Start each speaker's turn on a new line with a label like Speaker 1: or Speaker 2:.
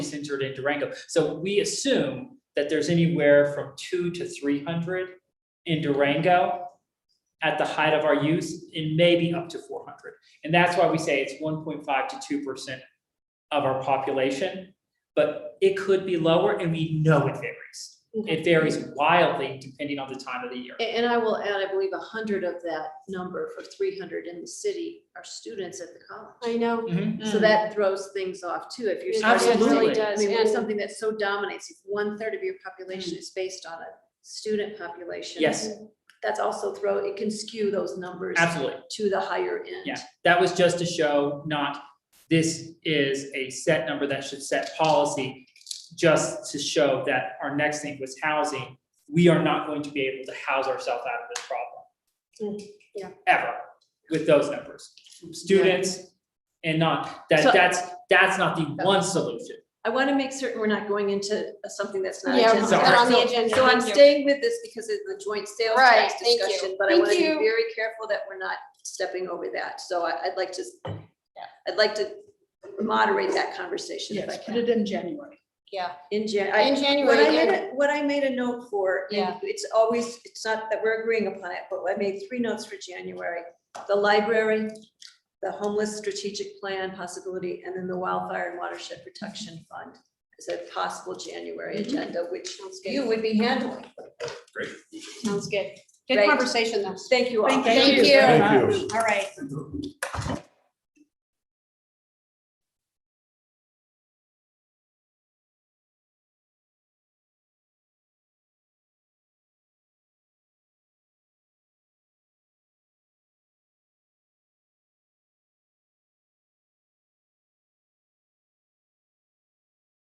Speaker 1: centered in Durango. So we assume that there's anywhere from two to three hundred in Durango at the height of our use, and maybe up to four hundred. And that's why we say it's one point five to two percent of our population. But it could be lower, and we know it varies. It varies wildly depending on the time of the year.
Speaker 2: A- And I will add, I believe, a hundred of that number for three hundred in the city are students at the
Speaker 3: I
Speaker 2: college.
Speaker 3: know.
Speaker 1: Mhm.
Speaker 2: So that throws things off too, if you're.
Speaker 3: It
Speaker 2: starting to
Speaker 1: Absolutely.
Speaker 3: really
Speaker 2: say, I
Speaker 3: does,
Speaker 2: mean, when
Speaker 3: and-
Speaker 2: something that so dominates, if one-third of your population is based on a student population.
Speaker 1: Hmm. Yes.
Speaker 2: That's also throw, it can skew those numbers
Speaker 1: Absolutely.
Speaker 2: to the higher end.
Speaker 1: Yeah. That was just to show not, this is a set number that should set policy, just to show that our next thing was housing. We are not going to be able to house ourselves out of this problem.
Speaker 2: Mm, yeah.
Speaker 1: Ever with those numbers, students and not, that,
Speaker 2: So-
Speaker 1: that's, that's not the one solution.
Speaker 2: I want to make certain we're not going into something that's not.
Speaker 3: Yeah,
Speaker 2: agenda.
Speaker 1: it's not
Speaker 3: on the
Speaker 2: So-
Speaker 3: agenda.
Speaker 2: So I'm
Speaker 3: Thank you.
Speaker 2: staying with this because of the joint sales
Speaker 3: Right,
Speaker 2: tax
Speaker 3: thank you.
Speaker 2: discussion, but I
Speaker 3: Thank
Speaker 2: want to be
Speaker 3: you.
Speaker 2: very careful that we're not stepping over that. So I, I'd like to, I'd like to moderate that conversation if I
Speaker 4: Yes, put
Speaker 2: can.
Speaker 4: it in January.
Speaker 3: Yeah,
Speaker 2: In Jan, I,
Speaker 3: in
Speaker 2: what I made,
Speaker 3: January,
Speaker 2: a- what I made a note for, and
Speaker 3: Yeah.
Speaker 2: it's always, it's not that we're agreeing upon it, but I made three notes for January. The library, the homeless strategic plan possibility, and then the wildfire and watershed protection fund as a possible January
Speaker 3: Mm-hmm.
Speaker 2: agenda, which you would be handling.
Speaker 3: sounds good.
Speaker 2: Right.
Speaker 3: Good conversation though.
Speaker 2: Thank you all.
Speaker 3: Thank you.
Speaker 4: very much.
Speaker 5: Thank you.
Speaker 3: All right.